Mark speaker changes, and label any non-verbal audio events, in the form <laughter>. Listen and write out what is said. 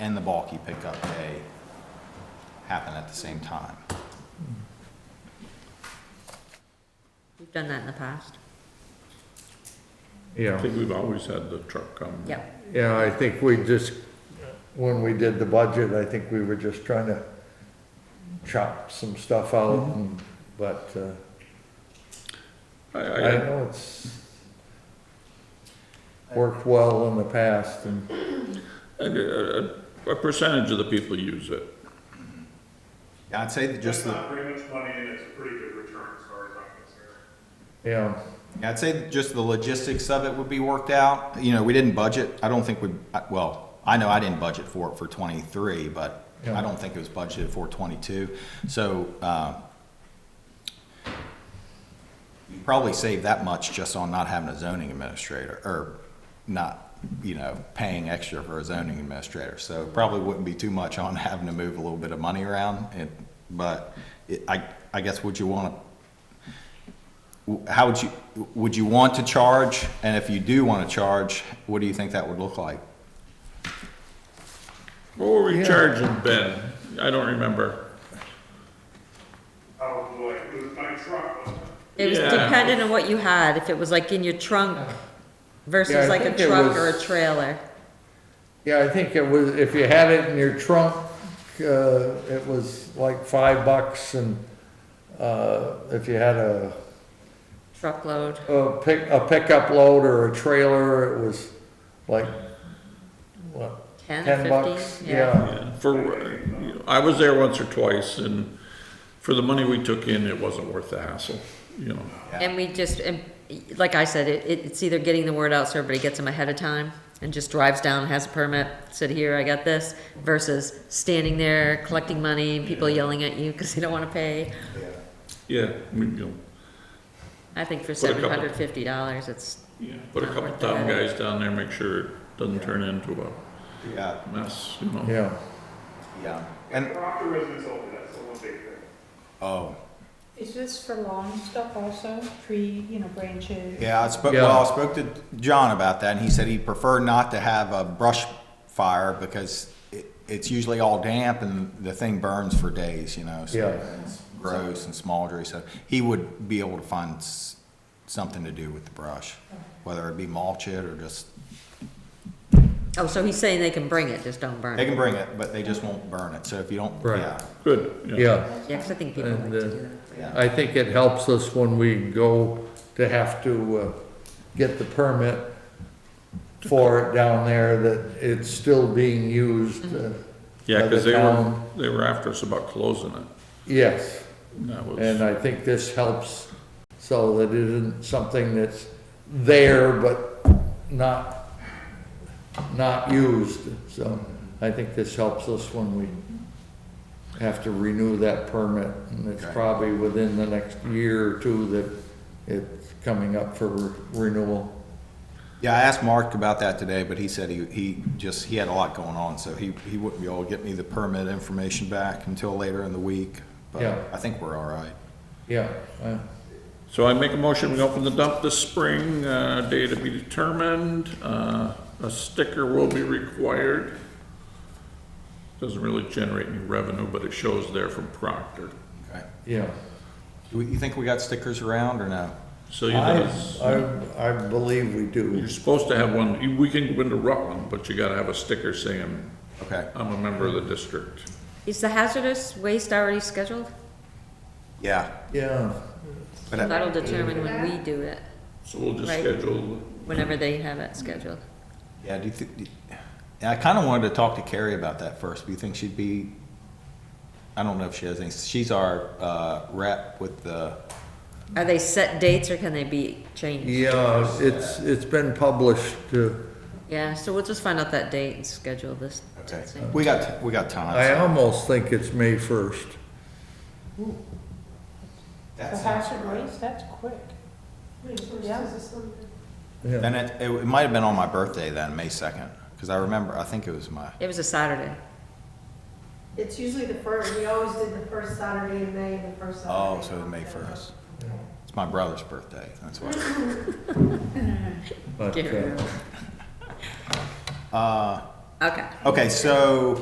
Speaker 1: and the bulky pickup day happen at the same time.
Speaker 2: We've done that in the past.
Speaker 3: Yeah.
Speaker 4: I think we've always had the truck come.
Speaker 2: Yeah.
Speaker 3: Yeah, I think we just, when we did the budget, I think we were just trying to chop some stuff out, and- but, uh,
Speaker 4: I,
Speaker 3: I
Speaker 4: I,
Speaker 3: know it's worked well in the past, and,
Speaker 4: I- a, a percentage of the people use it.
Speaker 1: I'd say that just the,
Speaker 5: That's not very much money and it's a pretty good return as far as I'm concerned.
Speaker 3: yeah,
Speaker 1: Yeah, I'd say just the logistics of it would be worked out. You know, we didn't budget, I don't think we, I- well, I know I didn't budget for it for twenty-three, but
Speaker 3: Yeah.
Speaker 1: I don't think it was budgeted for twenty-two. So, uh, you probably save that much just on not having a zoning administrator, or not, you know, paying extra for a zoning administrator. So it probably wouldn't be too much on <laughs> having to move a little bit of money around, and, but it, I, I guess would you wanna how would you, would you want to charge? And if you do want to charge, what do you think that would look like?
Speaker 4: What were we
Speaker 3: Yeah.
Speaker 4: charging Ben? I don't remember.
Speaker 5: Oh, boy, it was my truck, wasn't it?
Speaker 2: It was
Speaker 4: Yeah.
Speaker 2: dependent on what you had, if it was like in your trunk
Speaker 3: Yeah, I
Speaker 2: versus like a
Speaker 3: think it
Speaker 2: truck
Speaker 3: was-
Speaker 2: or a trailer.
Speaker 3: yeah, I think it was, if you had it in your trunk, uh, it was like five bucks, and, uh, if you had a,
Speaker 2: Truckload,
Speaker 3: a pick, a pickup load or a trailer, it was like, what,
Speaker 2: ten,
Speaker 3: ten bucks,
Speaker 2: fifteen, yeah.
Speaker 3: yeah.
Speaker 4: For, you know, I was there once or twice and for the money we took in, it wasn't worth the hassle, you know?
Speaker 2: And we just, and like I said, it, it- it's either getting the word out so everybody gets them ahead of time and just drives down, has a permit, said, here, I got this, versus standing there collecting money, and people yelling at you because they don't want to pay.
Speaker 4: Yeah, we, you know,
Speaker 2: I think for
Speaker 4: Put a
Speaker 2: seven
Speaker 4: couple-
Speaker 2: hundred fifty dollars, it's,
Speaker 4: yeah, put a
Speaker 2: Not
Speaker 4: couple
Speaker 2: worth the
Speaker 4: town
Speaker 2: headache.
Speaker 4: guys down there, make sure it doesn't turn into
Speaker 1: Yeah,
Speaker 4: a mess, you know?
Speaker 3: Yeah,
Speaker 1: yeah.
Speaker 5: And
Speaker 1: And,
Speaker 5: Rock the residents over, that's the one big thing.
Speaker 1: oh,
Speaker 6: Is this for lawn stuff also, tree, you know, branches?
Speaker 1: yeah, I spoke,
Speaker 3: Yeah.
Speaker 1: well, I spoke to John about that, and he said he'd prefer not to have a brush fire because it, it's usually all damp and the thing burns for days, you know? so
Speaker 3: Yeah.
Speaker 1: it's Gross and smoldery, so he would be able to find s- something to do with the brush, whether it be mulch it or just,
Speaker 2: oh, so he's saying they can bring it, just don't burn
Speaker 1: they
Speaker 2: it.
Speaker 1: can bring it, but they just won't burn it, so if you don't,
Speaker 3: Right.
Speaker 1: yeah,
Speaker 4: Good, yeah.
Speaker 3: yeah.
Speaker 2: Yeah, 'cause I think people like
Speaker 3: And
Speaker 2: to do
Speaker 3: uh,
Speaker 2: that.
Speaker 1: yeah.
Speaker 3: I think it helps us when we go to have to uh, get the permit for it down there, that it's still being used. uh,
Speaker 4: Yeah,
Speaker 3: by
Speaker 4: cause
Speaker 3: the
Speaker 4: they were,
Speaker 3: town.
Speaker 4: they were after us about closing it.
Speaker 3: Yes,
Speaker 4: And that was.
Speaker 3: and I think this helps so that it isn't something that's there but not, not used. So I think this helps us when we have to renew that permit. And it's
Speaker 1: Okay.
Speaker 3: probably within the next year or two that it's coming up for re- renewal.
Speaker 1: Yeah, I asked Mark about that today, but he said he, he just, he had a lot going on, so he, he wouldn't be able to get me the permit information back until later in the week. But
Speaker 3: Yeah.
Speaker 1: I think we're all right.
Speaker 3: Yeah, uh,
Speaker 4: So I make a motion, we open the dump this spring, uh, day to be determined, uh, a sticker will be required. Doesn't really generate any revenue, but it shows there from Proctor.
Speaker 1: Okay.
Speaker 3: yeah.
Speaker 1: Do we- You think we got stickers around or no?
Speaker 4: So you
Speaker 3: I,
Speaker 4: guys,
Speaker 3: I, I believe we
Speaker 4: you're
Speaker 3: do.
Speaker 4: supposed to have one, you- we can go into Rutland, but you gotta have a sticker saying,
Speaker 1: Okay.
Speaker 4: I'm a member of the district.
Speaker 2: Is the hazardous waste already scheduled?
Speaker 1: Yeah.
Speaker 3: Yeah,
Speaker 1: But I-
Speaker 2: That'll determine when we do it,
Speaker 4: So we'll just
Speaker 2: Right.
Speaker 4: schedule,
Speaker 2: whenever they have it scheduled.
Speaker 1: Yeah, do you thi- do- yeah, I kind of wanted to talk to Carrie about that first. Do you think she'd be, I don't know if she has any, she's our, uh, rep with the,
Speaker 2: Are they set dates or can they be changed?
Speaker 3: yeah, it's, it's been published, uh,
Speaker 2: Yeah, so we'll just find out that date and schedule this.
Speaker 1: okay.
Speaker 2: thing.
Speaker 1: We got, we got
Speaker 3: I
Speaker 1: time.
Speaker 3: almost think it's May first.
Speaker 6: For hazard waste, that's quick. Yeah.
Speaker 3: Yeah,
Speaker 1: And it, it it might have been on my birthday then, May second, because I remember, I think it was my,
Speaker 2: It was a Saturday.
Speaker 7: It's usually the first, we always did the first Saturday in May and the first Saturday.
Speaker 1: Oh,
Speaker 7: in
Speaker 1: so May
Speaker 7: October.
Speaker 1: first. It's my brother's birthday, that's why.
Speaker 3: but,
Speaker 2: Get rid
Speaker 3: uh,
Speaker 2: of it.
Speaker 1: Uh,
Speaker 2: Okay.
Speaker 1: Okay, so